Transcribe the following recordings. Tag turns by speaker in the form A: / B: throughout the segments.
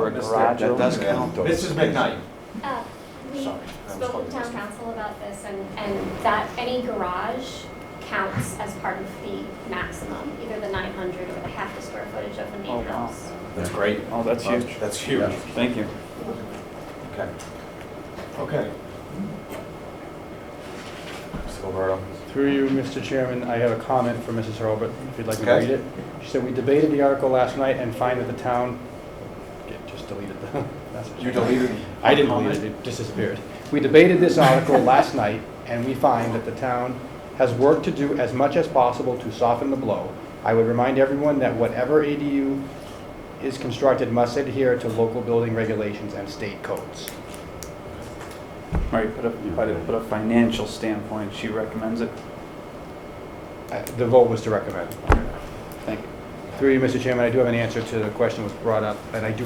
A: missed it.
B: garage
A: That does
B: opener.
A: count, though.
C: Mrs. McKnight,
D: Uh, We
C: Sorry, I was
D: spoke
C: talking
D: with
C: to
D: town
C: myself.
D: council about this, and, and that any garage counts as part of the maximum, either the 900 or the half the square footage of an
B: Oh, wow.
D: in-house.
C: that's great.
B: Oh, that's huge.
C: That's huge.
A: Yeah.
B: Thank you.
C: Okay. Okay. Mr. Gilberto.
E: Through you, Mr. Chairman, I have a comment from Mrs. Hurlbut, if you'd like me to
C: Okay.
E: read it. She said, "We debated the article last night and find that the town," Okay, just deleted the message.
C: You deleted.
E: I didn't delete it, it just disappeared. "We debated this article last night and we find that the town has work to do as much as possible to soften the blow. I would remind everyone that whatever ADU is constructed must adhere to local building regulations and state codes."
B: Right, but a, but a, but a financial standpoint, she recommends it.
E: Uh, The vote was to recommend.
B: Thank you.
E: Through you, Mr. Chairman, I do have an answer to the question that was brought up, and I do,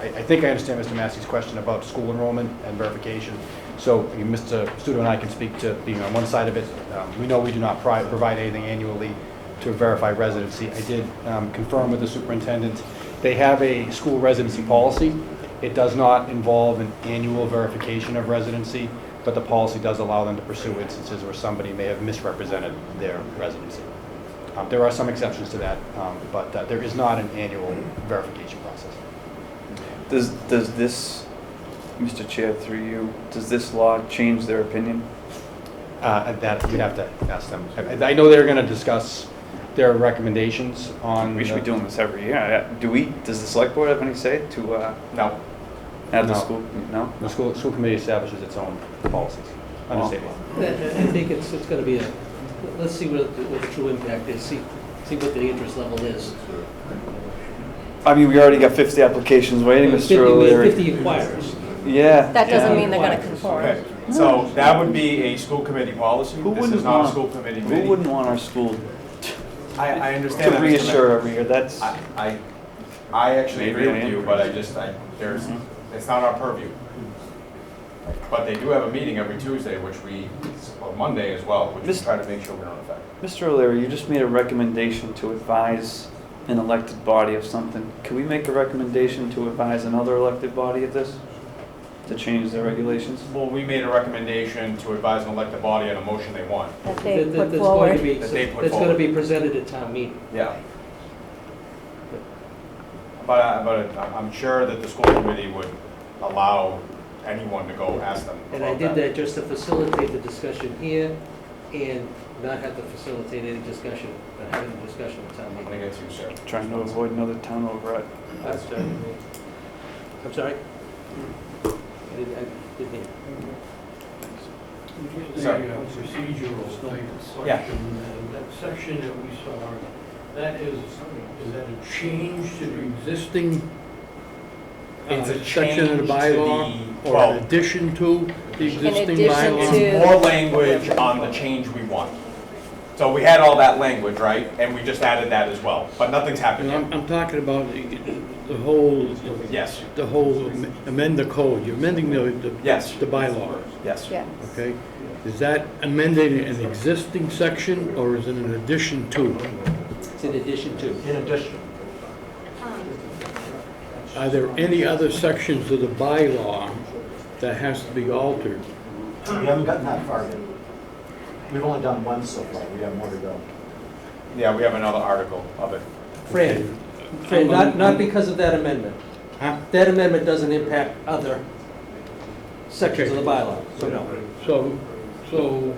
E: I I think I understand Mr. Massey's question about school enrollment and verification. So I mean, Mr. Studo and I can speak to being on one side of it. Um, We know we do not pri- provide anything annually to verify residency. I did um, confirm with the superintendent, they have a school residency policy. It does not involve an annual verification of residency, but the policy does allow them to pursue instances where somebody may have misrepresented their residency. Um, There are some exceptions to that, um, but uh, there is not an annual verification process.
B: Does, does this, Mr. Chair, through you, does this law change their opinion?
E: Uh, and That, you'd have to ask them. I I know they're going to discuss their recommendations on.
B: We should be
E: the-
B: doing this every year. I- Do we, does the select board have any say to, uh,
C: No.
B: have the
E: No.
B: school? No?
E: The school, school committee establishes its own policies under state law.
F: I I think it's, it's gonna be a, let's see what, what the true impact is, see, see what the interest level is.
B: I mean, we already got fifty applications waiting,
F: Fifty-
B: Mr.
F: we have
B: O'Leary.
F: Fifty inquirers.
B: Yeah.
G: That doesn't
F: Yeah.
G: mean they're gonna
F: Requires.
G: conform.
C: Okay, so that would be a school committee policy.
B: Who
C: This
B: wouldn't
C: is not a
B: want-
C: school committee
B: Who
C: meeting.
B: wouldn't want our school
C: I, I understand
B: to
C: that. Mr.
B: reassure every year? That's,
C: Mayor. I, I, I actually
B: Maybe
C: agree
B: I
C: with
B: am
C: you,
B: crazy.
C: but I just, I, there's, it's not our purview. But they do have a meeting every Tuesday, which we, or Monday as well, which we
B: This-
C: try to make sure we don't affect.
B: Mr. O'Leary, you just made a recommendation to advise an elected body of something. Can we make a recommendation to advise another elected body of this? To change their regulations?
C: Well, we made a recommendation to advise and elect the body on a motion they want.
G: That
F: That-
G: they
F: that-
G: put
F: that's going to
G: forward.
F: be-
C: That they put
F: That's gonna
C: forward.
F: be presented at town meeting.
C: Yeah. But, I- but I- I'm sure that the school committee would allow anyone to go ask them
F: And I
C: about
F: did that just to facilitate the discussion here and not have to facilitate any discussion, but having a discussion at town
C: I'm
F: meeting.
C: gonna get you, sir.
B: Trying to avoid another town override.
F: That's right. I'm sorry? I didn't, I didn't hear.
H: Just
C: Sorry.
H: a procedural thing,
C: Yeah.
H: question, uh, that section that we saw, that is, is that a change to the existing uh,
C: It's a
H: section of
C: change to
H: the bylaw?
C: the-
H: Or
C: well-
H: an addition to the existing
G: addition
H: bylaw?
G: to-
C: It's more language on the change we want. So we had all that language, right? And we just added that as well, but nothing's happened
H: And I'm,
C: yet.
H: I'm talking about the the whole,
C: Yes,
H: the whole am- amend the code, you're amending the, the-
C: Yes.
H: the bylaw,
C: yes.
G: Yeah.
H: okay? Is that amending an existing section or is it an addition to?
F: It's in addition to.
H: In addition.
D: Um,
H: Are there any other sections of the bylaw that has to be altered?
I: We haven't gotten that far yet. We've only done one so far, we have more to go.
C: Yeah, we have another article of it.
F: Fran, Fran, not, not because of that amendment.
H: Huh?
F: That amendment doesn't impact other sections of the bylaw, so no.
H: So, so,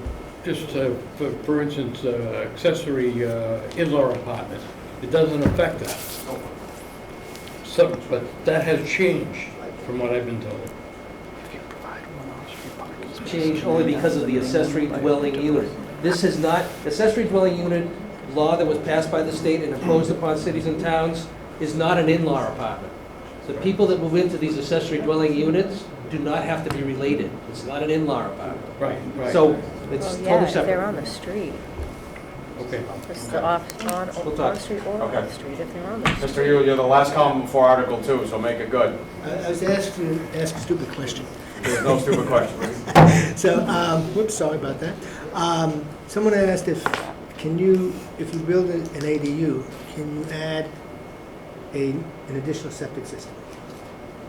H: just uh, for, for instance, uh, accessory uh, in-law apartment, it doesn't affect that. So, but that has changed from what I've been told.
F: Change only because of the accessory dwelling unit. This is not, accessory dwelling unit law that was passed by the state and imposed upon cities and towns is not an in-law apartment. The people that move into these accessory dwelling units do not have to be related. It's not an in-law apartment.
H: Right, right.
F: So it's
G: Well, yeah,
F: totally
G: if
F: separate.
G: they're on the street.
H: Okay.
G: This is off, on,
F: We'll
G: on
F: talk.
G: the street or off
C: Okay.
G: the street if they're on the street.
C: Mr. Yule, you're the last comment for Article Two, so make it good.
J: I I was asked to ask a stupid question.
C: There's no stupid questions.
J: So, um, whoops, sorry about that. Um, Someone asked if, can you, if you build an an ADU, can you add a, an additional septic system?